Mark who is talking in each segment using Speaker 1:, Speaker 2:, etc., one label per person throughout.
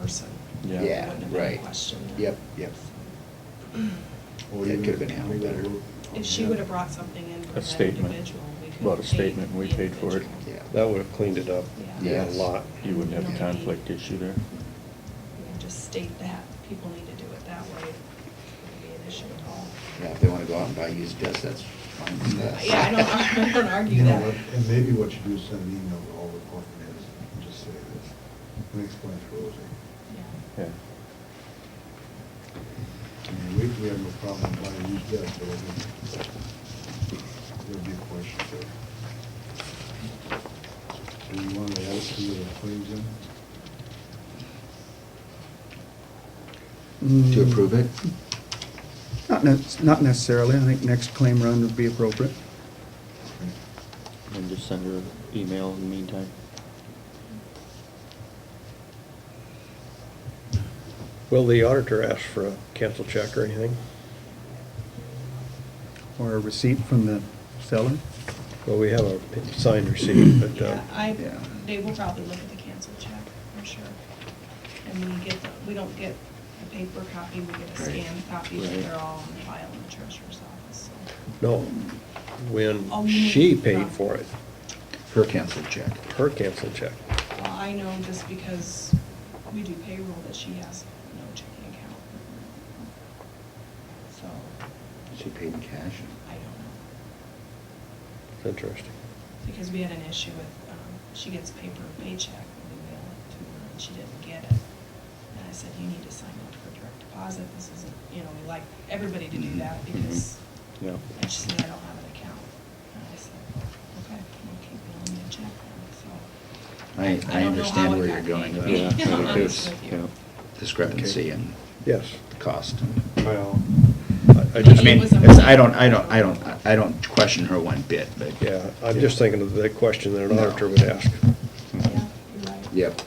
Speaker 1: person.
Speaker 2: Yeah.
Speaker 1: It
Speaker 2: Yeah,
Speaker 1: wouldn't have been
Speaker 3: right.
Speaker 1: questioned.
Speaker 3: Yep, yep.
Speaker 4: Or
Speaker 3: That
Speaker 4: even
Speaker 3: could've been
Speaker 4: if
Speaker 3: handled better.
Speaker 4: we-
Speaker 5: If she would have brought something in for
Speaker 2: A
Speaker 5: that
Speaker 2: statement.
Speaker 5: individual, we could have paid.
Speaker 2: About a statement, and we
Speaker 5: the
Speaker 2: paid for it.
Speaker 5: individual.
Speaker 3: Yeah.
Speaker 6: That would have cleaned it up
Speaker 3: Yeah.
Speaker 6: a lot.
Speaker 2: You wouldn't have a
Speaker 5: Yeah.
Speaker 2: conflict issue there.
Speaker 5: We can Just state that, people need to do it that way, it wouldn't be an issue at all.
Speaker 3: Yeah, if they wanna go out and buy used dust, that's fine with us.
Speaker 5: Yeah, I don't- I don't argue
Speaker 4: You know
Speaker 5: that.
Speaker 4: what, And maybe what you do is send an email to all the department heads and just say this, and explain to Rosie.
Speaker 2: Yeah.
Speaker 4: I mean, we, we have no problem buying used gas, but I think there'd be a question there. Do you want to add some of the claims in?
Speaker 3: To approve it?
Speaker 7: Not nec- not necessarily. I think next claim run would be appropriate.
Speaker 2: And just send her an email in the meantime.
Speaker 6: Will the auditor ask for a cancel check or anything?
Speaker 7: Or a receipt from the seller.
Speaker 6: Well, we have a signed receipt,
Speaker 2: um,
Speaker 6: but, uh,
Speaker 5: Yeah, I,
Speaker 7: Yeah.
Speaker 5: they will probably look at the canceled check, I'm sure. And we get, the we don't get a paper copy, we get a
Speaker 3: Right.
Speaker 5: scanned copy, but
Speaker 2: Right.
Speaker 5: they're all on file in the treasurer's office, so.
Speaker 6: no,
Speaker 5: Oh,
Speaker 6: when
Speaker 5: you
Speaker 6: she
Speaker 5: mean-
Speaker 6: paid for it,
Speaker 3: Her canceled check.
Speaker 6: her cancel check.
Speaker 5: Well, I know just because we do payroll that she has no checking account. So,
Speaker 3: She paid in cash.
Speaker 5: I don't know.
Speaker 6: It's interesting.
Speaker 5: Because we had an issue with, um, she gets paper paycheck, and we mail it to her, and she didn't get it. And I said, you need to sign up for direct deposit, this isn't, you know, we like everybody to do that, because,
Speaker 2: Yeah.
Speaker 5: and she said, I don't have an account. And I said, okay, we'll keep mailing you a check then, so.
Speaker 3: I, I
Speaker 5: don't know how
Speaker 3: understand
Speaker 5: it
Speaker 3: where you're
Speaker 5: got
Speaker 3: going with
Speaker 5: paid,
Speaker 2: Yeah,
Speaker 5: to be
Speaker 2: yeah, it
Speaker 5: honest
Speaker 2: is,
Speaker 5: with
Speaker 2: yeah.
Speaker 5: you.
Speaker 3: discrepancy and
Speaker 6: Yes.
Speaker 3: the cost.
Speaker 6: Well, I- I
Speaker 3: I
Speaker 6: just,
Speaker 5: It
Speaker 3: mean,
Speaker 5: was a-
Speaker 3: it's- I don't, I don't, I don't, I don't question her one bit, but.
Speaker 6: yeah, I'm just thinking of the question that an
Speaker 3: No.
Speaker 6: auditor would ask.
Speaker 5: Yeah, you're right.
Speaker 3: Yep.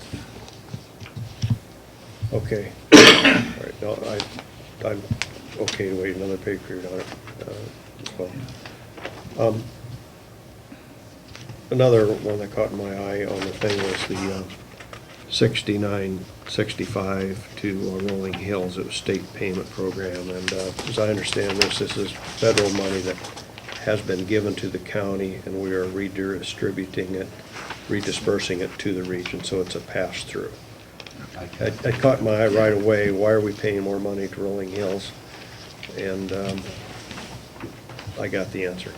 Speaker 6: Okay. All right, no, I, I'm okay to wait another pay period on it, uh, as well. Um, Another one that caught my eye on the thing was the uh, 69, 65 to uh, Rolling Hills, it was state payment program. And uh, as I understand this, this is federal money that has been given to the county, and we are redistributing it, redispersing it to the region, so it's a pass-through. That that caught my eye right away, why are we paying more money to Rolling Hills? And um, I got the answer.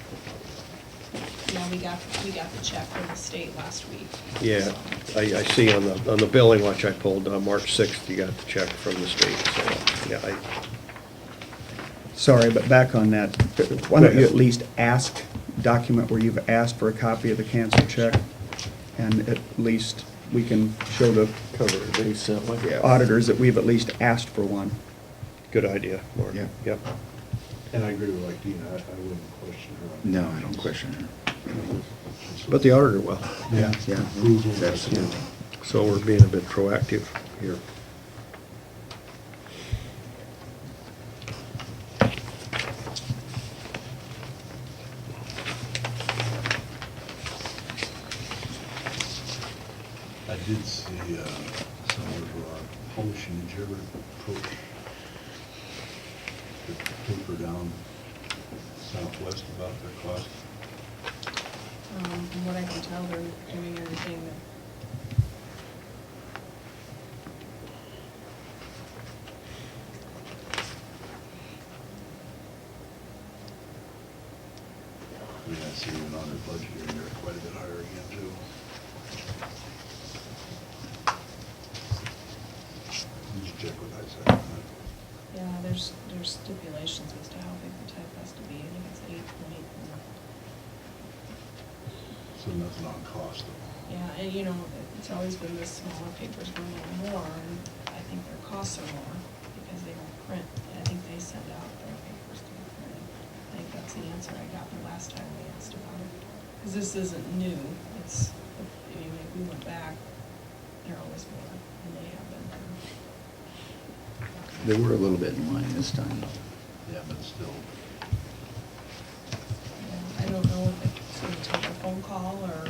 Speaker 5: Yeah, we got, we got the check from the state last week.
Speaker 6: Yeah,
Speaker 5: so.
Speaker 6: I, I see on the, on the billing watch I pulled, uh, March sixth, you got the check from the state, so, yeah, I,
Speaker 7: Sorry, but back on that, why don't you at least ask, document where you've asked for a copy of the canceled check? And at least we can show the
Speaker 2: Cover it, they sent one.
Speaker 3: Yeah.
Speaker 7: auditors that we've at least asked for one.
Speaker 6: good idea, Mark.
Speaker 3: Yeah.
Speaker 6: Yep.
Speaker 4: And I agree with like Dean, I, I wouldn't question her. on
Speaker 3: No,
Speaker 4: that.
Speaker 3: I don't question her.
Speaker 6: But the auditor will,
Speaker 4: Yeah.
Speaker 3: Yeah.
Speaker 4: Approval.
Speaker 3: Absolutely.
Speaker 6: so we're being a bit proactive here.
Speaker 4: I did see, uh, some of, uh, Holshin, did you ever approach the paper down southwest about their cost?
Speaker 5: Um, From what I can tell, they're doing everything that,
Speaker 4: I mean, I see them on their budget here, and they're quite a bit higher again, too. You should check with ISAC on that.
Speaker 5: yeah, there's, there's stipulations as to how big the type has to be. I think it's eight point.
Speaker 4: So nothing on cost, though.
Speaker 5: Yeah, and you know, it's always been the smaller papers were a little more, and I think their costs are more because they don't print. I think they send out their papers to be printed. I think that's the answer I got the last time we asked about it. Because this isn't new, it's, I mean, if we went back, they're always more, and they have been.
Speaker 3: They were a little bit in line this time.
Speaker 4: Yeah, but still.
Speaker 5: Yeah, I don't know if it's going to take a phone call or